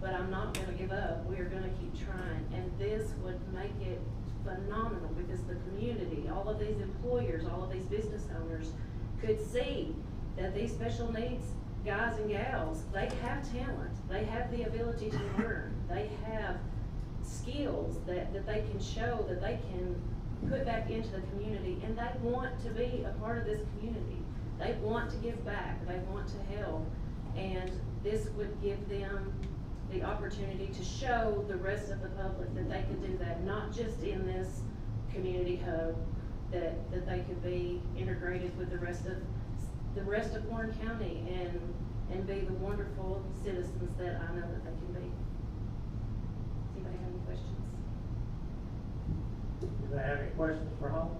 but I'm not gonna give up, we are gonna keep trying. And this would make it phenomenal, because the community, all of these employers, all of these business owners could see that these special needs guys and gals, they have talent, they have the ability to learn, they have skills that, that they can show, that they can put back into the community, and they want to be a part of this community. They want to give back, they want to help, and this would give them the opportunity to show the rest of the public that they could do that, not just in this community hub, that, that they could be integrated with the rest of, the rest of Warren County and, and be the wonderful citizens that I know that they can be. Does anybody have any questions? Do they have any questions for Holly?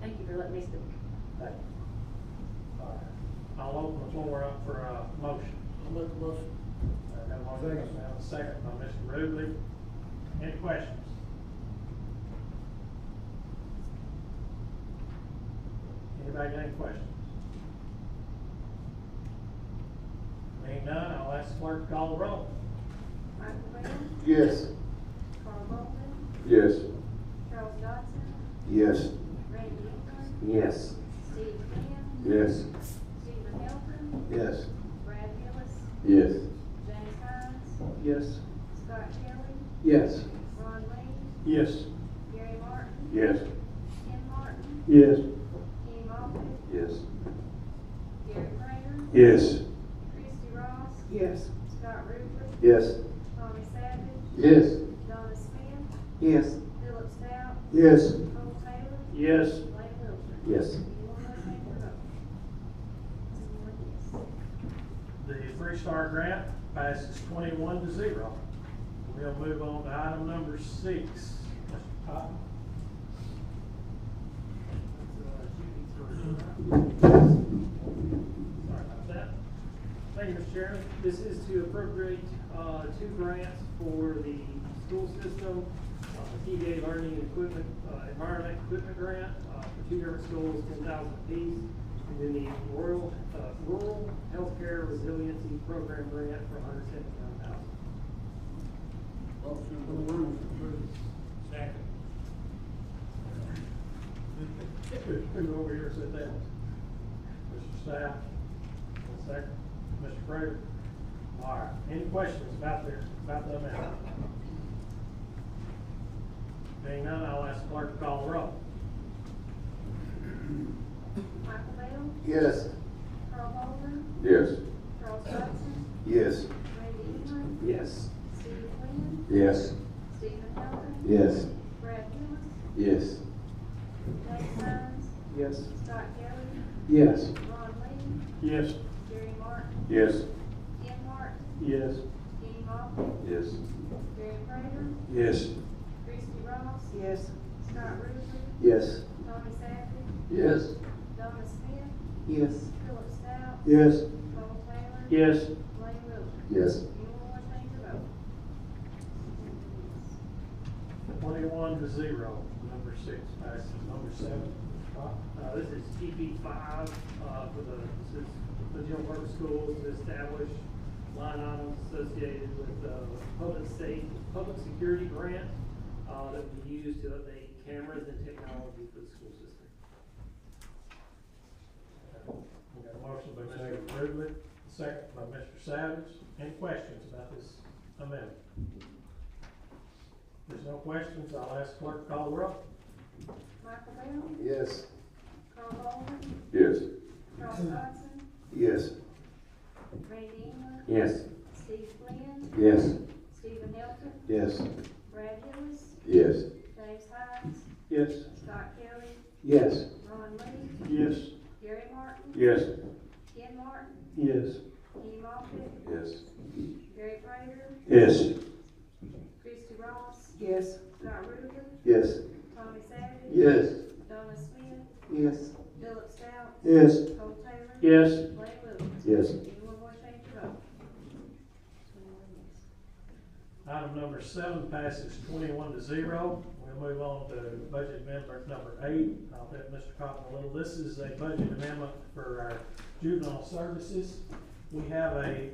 Thank you for letting me speak. Thank you. All right. I'll open the floor up for a motion. I'll make a motion. I have a motion, I have a second by Mr. Rubley. Any questions? Anybody got any questions? Being none, I'll ask clerk to call the roll. Michael Bell, Yes. Carl Bolton, Yes. Charles Dodson, Yes. Randy England, Yes. Steve Quinn, Yes. Stephen Hilton, Yes. Brad Hillis, Yes. James Hines, Yes. Scott Kelly, Yes. Ron Lee, Yes. Gary Martin, Yes. Ken Martin, Yes. Kenny Moffitt, Yes. Gary Frager, Yes. Christie Ross, Yes. Scott Ruble, Yes. Tommy Savage, Yes. Donna Smith, Yes. Philip Stout, Yes. Cole Taylor, Yes. Lane Wilcher. Yes. Anyone want to take their vote? Anyone, yes. The Free Star Grant passes twenty-one to zero. We'll move on to item number six. Mr. Cotton? Sorry about that. Thank you, Mr. Chairman. This is to appropriate, uh, two grants for the school system, uh, TDA Learning and Equipment, uh, Environment Equipment Grant, uh, for two different schools, ten thousand apiece. And then the Rural, uh, Rural Healthcare Resiliency Program Grant for hundred seventy-nine thousand. Motion to approve. Who over here said that? Mr. Staff, one second, Mr. Prater. All right, any questions about the, about the amount? Being none, I'll ask clerk to call the roll. Michael Bell, Yes. Carl Bolton, Yes. Charles Dodson, Yes. Randy England, Yes. Steve Quinn, Yes. Stephen Hilton, Yes. Brad Hillis, Yes. James Hines, Yes. Scott Kelly, Yes. Ron Lee, Yes. Gary Martin, Yes. Ken Martin, Yes. Kenny Moffitt, Yes. Gary Prater, Yes. Christie Ross, Yes. Scott Ruble, Yes. Tommy Savage, Yes. Donna Smith, Yes. Philip Stout, Yes. Cole Taylor, Yes. Blaine Wiltshire. Yes. Anyone want to change their vote? Twenty-one to zero, number six passes, number seven. Uh, this is TP five, uh, for the, this is for the general purpose schools to establish line items associated with, uh, public safety, public security grant, uh, that we use to update cameras and technology for the school system. We got a motion by Mr. Rubley, second by Mr. Savage. Any questions about this amendment? There's no questions, I'll ask clerk to call the roll. Michael Bell, Yes. Carl Bolton, Yes. Charles Dodson, Yes. Randy England, Yes. Steve Flynn, Yes. Stephen Hilton, Yes. Brad Hillis, Yes. James Hines, Yes. Scott Kelly, Yes. Ron Lee, Yes. Gary Martin, Yes. Ken Martin, Yes. Kenny Moffitt, Yes. Gary Prater, Yes. Christie Ross, Yes. Scott Ruble, Yes. Tommy Savage, Yes. Donna Smith, Yes. Philip Stout, Yes. Cole Taylor, Yes. Blaine Wiltshire. Yes. Anyone want to change their vote? Anyone, yes. Item number seven passes twenty-one to zero. We'll move on to budget amendment number eight. I'll bet Mr. Cotton a little. This is a budget amendment for our juvenile services. We have a